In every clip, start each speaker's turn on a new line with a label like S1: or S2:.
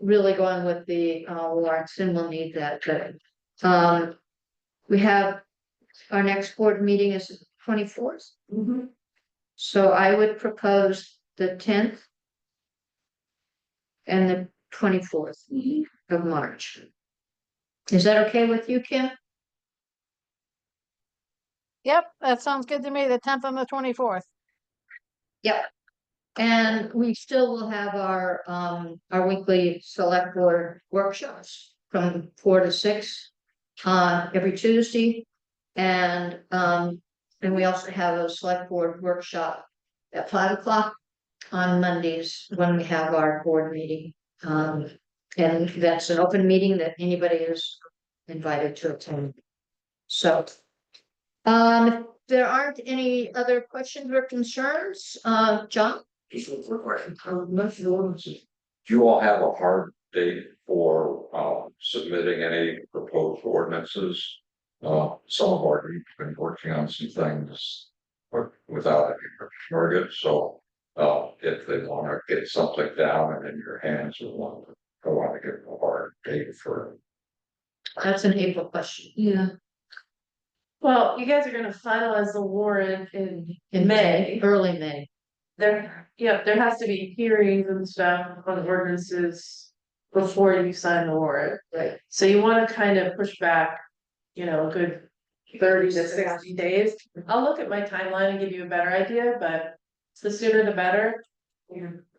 S1: really going with the uh warrants, and we'll need that, but um. We have, our next board meeting is twenty fourth, so I would propose the tenth. And the twenty fourth of March. Is that okay with you, Kim?
S2: Yep, that sounds good to me, the tenth and the twenty-fourth.
S1: And we still will have our, um, our weekly select board workshops from four to six. Uh, every Tuesday. And, um, and we also have a select board workshop at five o'clock. On Mondays when we have our board meeting. Um, and that's an open meeting that anybody is invited to attend. So. Um, if there aren't any other questions or concerns, uh, John?
S3: Do you all have a hard date for uh submitting any proposed ordinances? Uh, some of our, we've been working on some things. but Without any target, so uh if they wanna get something down and in your hands, we want to, I wanna give them a hard date for.
S1: That's an April question. Yeah.
S4: Well, you guys are gonna finalize the warrant in, in May.
S1: Early May.
S4: There, yeah, there has to be hearings and stuff on ordinances before you sign the warrant.
S1: Right.
S4: So you wanna kind of push back, you know, a good thirty to sixty days. I'll look at my timeline and give you a better idea, but the sooner the better.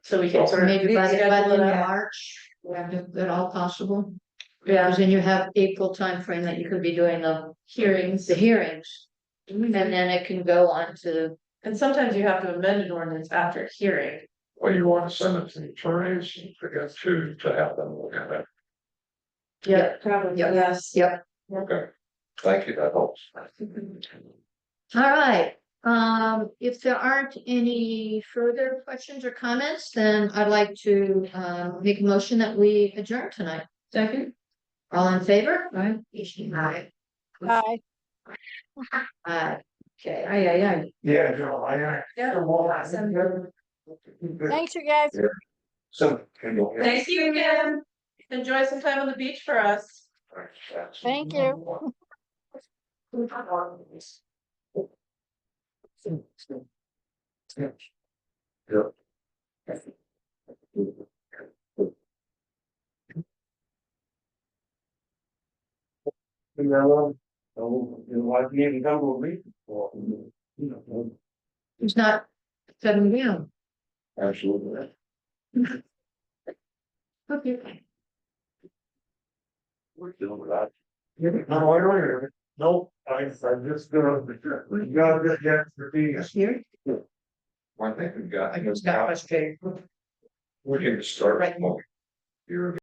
S4: So we can sort of.
S1: Maybe by the, by the end
S4: schedule it
S1: of
S4: out.
S1: March, if at all possible.
S4: Yeah,
S1: Because then you have April timeframe that you could be doing the hearings, the hearings. And then it can go on to,
S4: and sometimes you have to amend an ordinance after a hearing.
S3: Well, you wanna send it to the attorneys, you forget to to have them look at it,
S1: Yeah,
S4: probably,
S1: yeah.
S4: yes.
S1: yep.
S3: okay, thank you, that helps.
S1: All right. Um, if there aren't any further questions or comments, then I'd like to, um, make a motion that we adjourn tonight. Second. All in favor? Right. Aye.
S2: Bye.
S1: Aye. Okay.
S3: Yeah, Joe, I.
S4: Yeah.
S2: Thanks, you guys.
S3: So. Thank
S4: you again. Enjoy some time on the beach for us.
S2: Thank you.
S3: And that one, oh, you know, why didn't you even come with me? Well, you know,
S1: It's not seven down.
S3: Absolutely.
S1: Okay.
S3: We're dealing with that. No, I don't hear it. Nope, I, I'm just gonna, we gotta get the expertise.
S1: Here.
S3: Well, I think we got.
S1: I just got frustrated.
S3: We're gonna start.
S1: Right.
S3: You're.